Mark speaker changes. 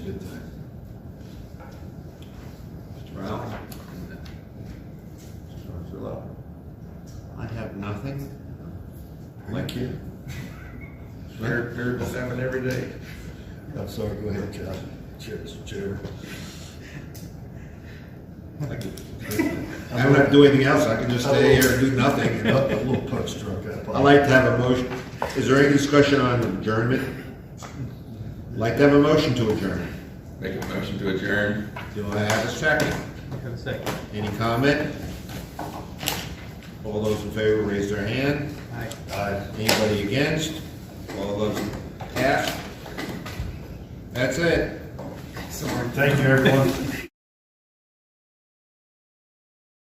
Speaker 1: Good thing. Mr. Brown? Mr. Love?
Speaker 2: I have nothing.
Speaker 1: Thank you.
Speaker 3: Heard, heard this happen every day.
Speaker 1: I'm sorry, go ahead, John. Cheers, chair. I could-
Speaker 3: I don't have to do anything else, I can just stay here and do
Speaker 1: I
Speaker 3: nothing.
Speaker 1: got Oh, A little punch drunk.
Speaker 3: I'd like to have a motion, is there any discussion on adjournment? Like to have a motion to adjourn.
Speaker 4: Make a motion to adjourn.
Speaker 3: Do I have a second?
Speaker 5: Have a second.
Speaker 3: Any comment? All those in favor, raise their hand.
Speaker 5: Aye.
Speaker 3: Aye. Anybody against? All those cast? That's it.
Speaker 1: Thank you, everyone.